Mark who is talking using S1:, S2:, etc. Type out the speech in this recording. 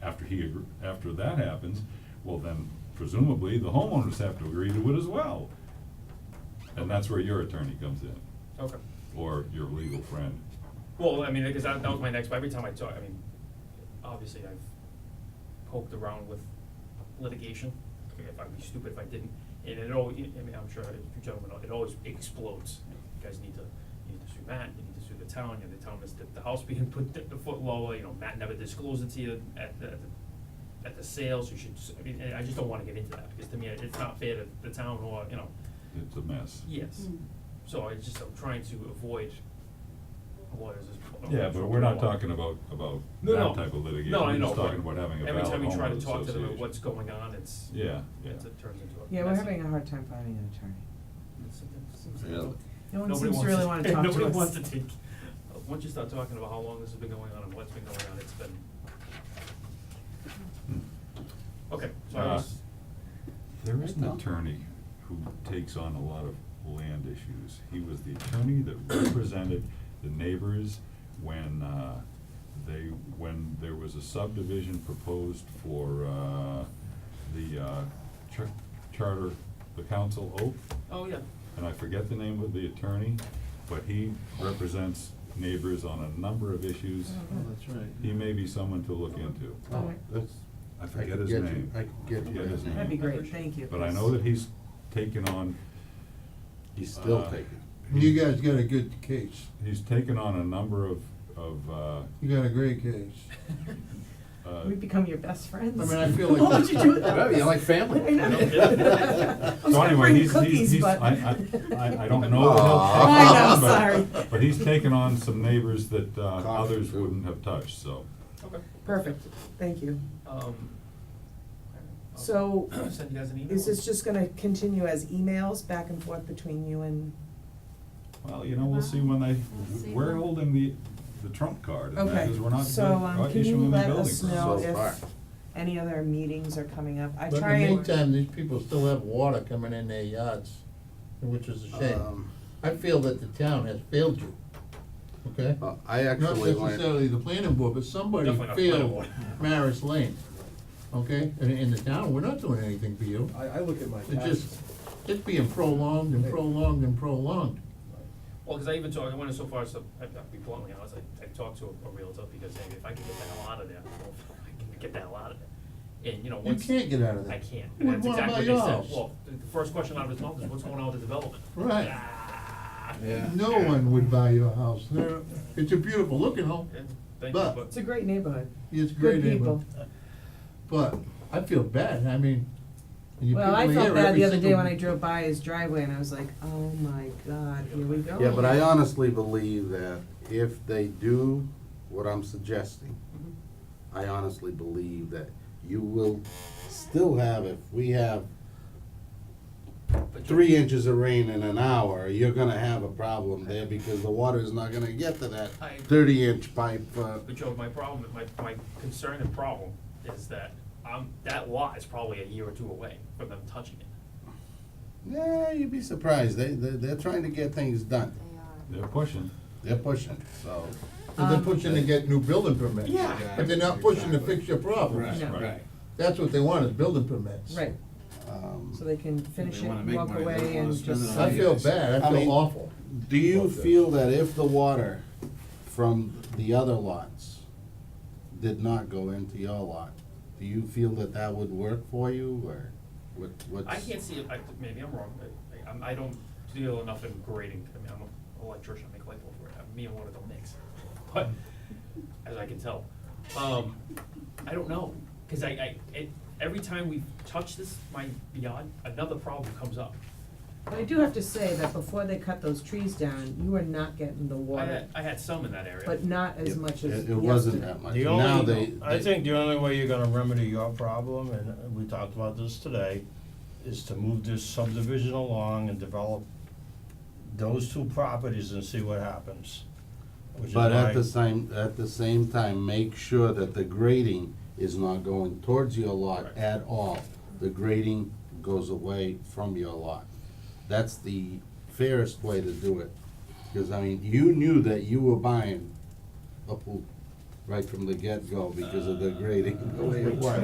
S1: he, agr- after that happens, well then presumably the homeowners have to agree to it as well. And that's where your attorney comes in,
S2: Okay.
S1: or your legal friend.
S2: Well, I mean, because that, that was my next, every time I talk, I mean, obviously I've poked around with litigation. I mean, If I'd be stupid if I didn't, and it all, I mean, I'm sure you gentlemen, know, it always explodes. You guys need to, you need to sue Matt, you need to sue the town, you know, the town is, the, the house being put the foot lower, you know, Matt never disclosed it to you at the, at the- at the sales, you should, s- I mean, I just don't wanna get into that, because to me, it's not fair to the town or, you know,
S1: It's a mess.
S2: yes.
S3: Mm.
S2: So I just, I'm trying to avoid lawyers as.
S1: Yeah, but we're not talking about, about
S2: No, no.
S1: that type of litigation,
S2: No, I
S1: we're
S2: know,
S1: just talking
S2: but
S1: about having a
S2: Every
S1: valid
S2: time we try to
S1: homeowners
S2: talk to them about
S1: association.
S2: what's going on, it's.
S1: Yeah, yeah.
S2: it's- It turns into a.
S3: Yeah, we're
S2: messy-
S3: having a hard time finding an attorney.
S2: it's- it's- it's-
S4: Really?
S3: No one
S2: Nobody
S3: seems
S2: wants
S3: to really wanna talk to us.
S2: Nobody wants to take, uh, once you start talking about how long this has been going on and what's been going on, it's been, okay, so I
S1: Uh,
S2: was,
S1: There is an
S4: No.
S1: attorney who takes on a lot of land issues. He was the attorney that represented the neighbors when, uh, they, when there was a subdivision proposed for, uh, the, uh, char- charter, the council oak,
S2: oh, yeah,
S1: and I forget the name of the attorney, but he represents neighbors on a number of issues.
S3: Oh,
S4: Oh, that's right.
S1: He may be someone to look into.
S4: Oh, that's.
S1: I forget his
S4: could get you-
S1: name.
S4: I could get you
S1: Forget his
S4: that.
S3: That'd be
S1: name.
S3: great, thank you.
S1: But I know that he's taken on,
S4: He's
S1: still
S4: still
S5: Uh,
S1: taking.
S4: taking. You guys got a good case.
S1: he's taken on a number of, of, uh,
S4: You got a great case.
S1: uh,
S3: We've become your best friends.
S4: I mean, I feel like-
S3: What would you do with that?
S4: Well, you're like family.
S3: I know.
S4: Yeah.
S1: So
S3: I'm just
S1: anyway, he's,
S3: bringing
S1: he's,
S3: cookies,
S1: he's,
S3: but-
S1: I, I, I- I don't know that he'll
S4: Aw.
S1: take it
S4: I know,
S1: on, but-
S3: sorry.
S1: But he's taken on some neighbors that, uh,
S4: Coffee,
S1: others
S4: too.
S1: wouldn't have touched, so.
S2: okay,
S3: Perfect, thank you.
S2: um. all right, I'll
S3: So,
S2: Send you guys an email.
S3: is this just gonna continue as emails back and forth between you and,
S1: Well, you know, we'll see when they,
S6: We'll see.
S1: we're holding the, the trump card, and that
S3: okay,
S1: is, we're not,
S3: so,
S1: doing-
S3: um,
S1: not
S3: can you
S1: issuing the building
S3: let
S1: permit.
S3: us know
S4: So far.
S3: if any other meetings are coming up? I
S4: But in
S3: try
S4: the
S3: and.
S4: meantime, these people still have water coming in their yards, which is a shame.
S7: Um,
S4: I feel that the town has failed you, okay?
S7: well, uh, I
S4: Not
S7: actually went,
S4: necessarily the planning board, but somebody
S2: Definitely not the planning
S4: failed Maris Lane, okay? And in the town, we're not doing anything for you.
S8: I, I look at my
S4: It's just,
S8: taxes,
S4: it's being prolonged and prolonged and prolonged.
S2: Well, because I even talked, I went so far as to, I- I'll be bluntly honest, I, I talked to a- a realtor because, hey, if I can get the hell out of there, well, I can get the hell out of there. And, you know,
S4: You
S2: once.
S4: can't get out of
S2: I
S4: that.
S2: can't, and
S4: Well,
S2: that's
S4: what
S2: exactly what they
S4: about
S2: said,
S4: yours?
S2: well, the the first question out of his mouth is, what's going on with the development?
S4: Right.
S2: Ah,
S7: yeah.
S4: No one would buy your house. They're- It's a beautiful looking home,
S2: and thank you,
S4: But-
S2: but,
S3: It's a great neighborhood.
S4: it's
S3: Good
S4: great
S3: people.
S4: neighborhood, but I feel bad, I mean, you people
S3: Well, I
S4: here,
S3: felt bad the
S4: every
S3: other day when I
S4: single-
S3: drove by his driveway and I was like, oh my god, here we go.
S7: yeah, but I honestly believe that if they do what I'm suggesting,
S2: Mhm.
S3: Mm-hmm.
S7: I honestly believe that you will still have, if we have
S2: but you're-
S7: three inches of rain in an hour, you're gonna have a problem there because the water is not gonna get to that
S2: I agree.
S7: thirty inch pipe, uh,
S2: But Joe, my problem, my, my concern and problem is that, um, that lot is probably a year or two away from them touching it.
S7: yeah, you'd be surprised. They, they, they're trying to get things done.
S6: They are.
S1: They're pushing.
S7: They're pushing, so.
S4: But
S3: Um,
S4: they're pushing to get new building permits.
S2: Yeah.
S4: But they're not pushing to fix your problems.
S3: No.
S1: right.
S4: That's what they want, is building permits.
S3: Right,
S7: um,
S3: so they can finish
S8: They
S3: it,
S8: wanna make
S3: walk
S8: money, they
S3: away
S8: don't wanna
S3: and
S8: spend it
S3: just.
S8: on
S4: I feel bad, I
S7: I mean-
S4: feel awful.
S7: Do you
S4: Okay.
S7: feel that if the water from the other lots did not go into your lot, do you feel that that would work for you, or what, what's?
S2: I can't see, it. I, maybe I'm wrong, I, I'm, I don't deal enough in grading, I mean, I'm an electrician, I make light bulbs, right, me and water don't mix, but, as I can tell. Um, I don't know, cause I, I, it, every time we touch this, my beyond, another problem comes up.
S3: But I do have to say that before they cut those trees down, you are not getting the
S2: I
S3: water,
S2: had, I had some in that area.
S3: but not as
S7: It-
S3: much as.
S7: It, it wasn't
S3: yesterday.
S7: that much,
S5: The
S7: now they.
S5: only, I
S7: they-
S5: think the only way you're gonna remedy your problem, and we talked about this today, is to move this subdivision along and develop those two properties and see what happens. Which is
S7: But
S5: why-
S7: at the same, at the same time, make sure that the grading is not going towards your lot
S2: Right.
S7: at all. The grading goes away from your lot. That's the fairest way to do it. Because, I mean, you knew that you were buying a pool,
S4: right from the get-go because of the grading, the way it was.